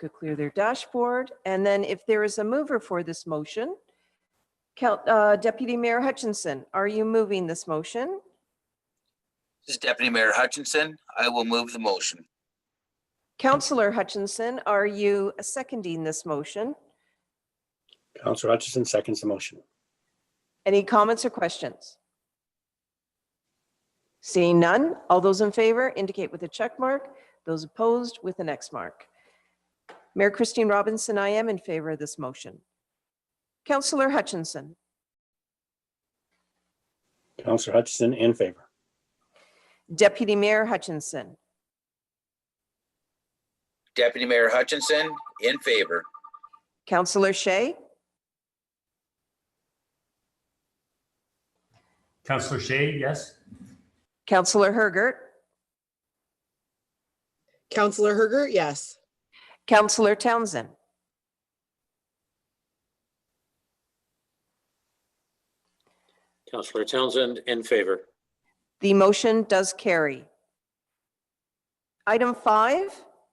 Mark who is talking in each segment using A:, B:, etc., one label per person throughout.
A: go clear their dashboard. And then if there is a mover for this motion, Cal- uh, Deputy Mayor Hutchinson, are you moving this motion?
B: This is Deputy Mayor Hutchinson. I will move the motion.
A: Counselor Hutchinson, are you seconding this motion?
C: Counselor Hutchison seconds the motion.
A: Any comments or questions? Seeing none, all those in favor indicate with a check mark, those opposed with an X mark. Mayor Christine Robinson, I am in favor of this motion. Counselor Hutchinson,
C: Counselor Hutchison in favor.
A: Deputy Mayor Hutchinson,
B: Deputy Mayor Hutchinson, in favor.
A: Counselor Shay,
D: Counselor Shay, yes.
A: Counselor Hergert,
E: Counselor Herger, yes.
A: Counselor Townsend.
F: Counselor Townsend in favor.
A: The motion does carry. Item five,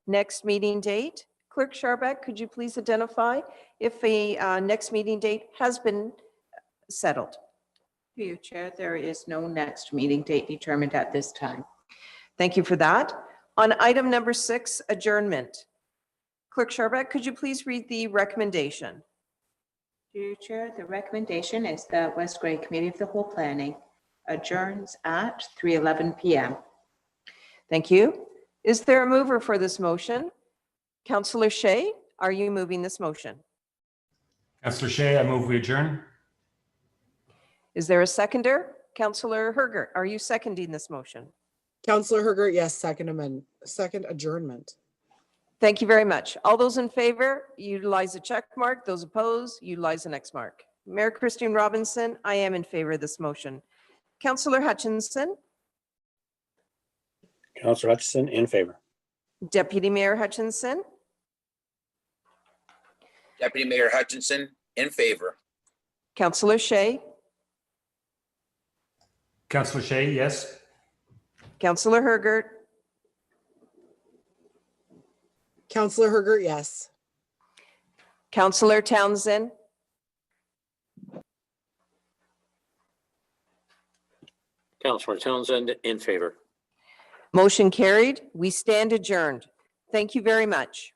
A: next meeting date. Clerk Sharbeck, could you please identify if the uh, next meeting date has been settled?
G: Through you, Chair, there is no next meeting date determined at this time.
A: Thank you for that. On item number six, adjournment. Clerk Sharbeck, could you please read the recommendation?
G: Through you, Chair, the recommendation is that West Gray Committee of the Whole Planning adjourns at 3:11 PM.
A: Thank you. Is there a mover for this motion? Counselor Shay, are you moving this motion?
D: Counselor Shay, I move we adjourn.
A: Is there a seconder? Counselor Hergert, are you seconding this motion?
E: Counselor Herger, yes, second amendment, second adjournment.
A: Thank you very much. All those in favor, utilize a check mark. Those opposed, utilize an X mark. Mayor Christine Robinson, I am in favor of this motion. Councillor Hutchinson,
C: Counselor Hutchison in favor.
A: Deputy Mayor Hutchinson,
B: Deputy Mayor Hutchinson, in favor.
A: Councillor Shay,
D: Counselor Shay, yes.
A: Councillor Hergert,
E: Counselor Herger, yes.
A: Councillor Townsend,
F: Counselor Townsend in favor.
A: motion carried. We stand adjourned. Thank you very much.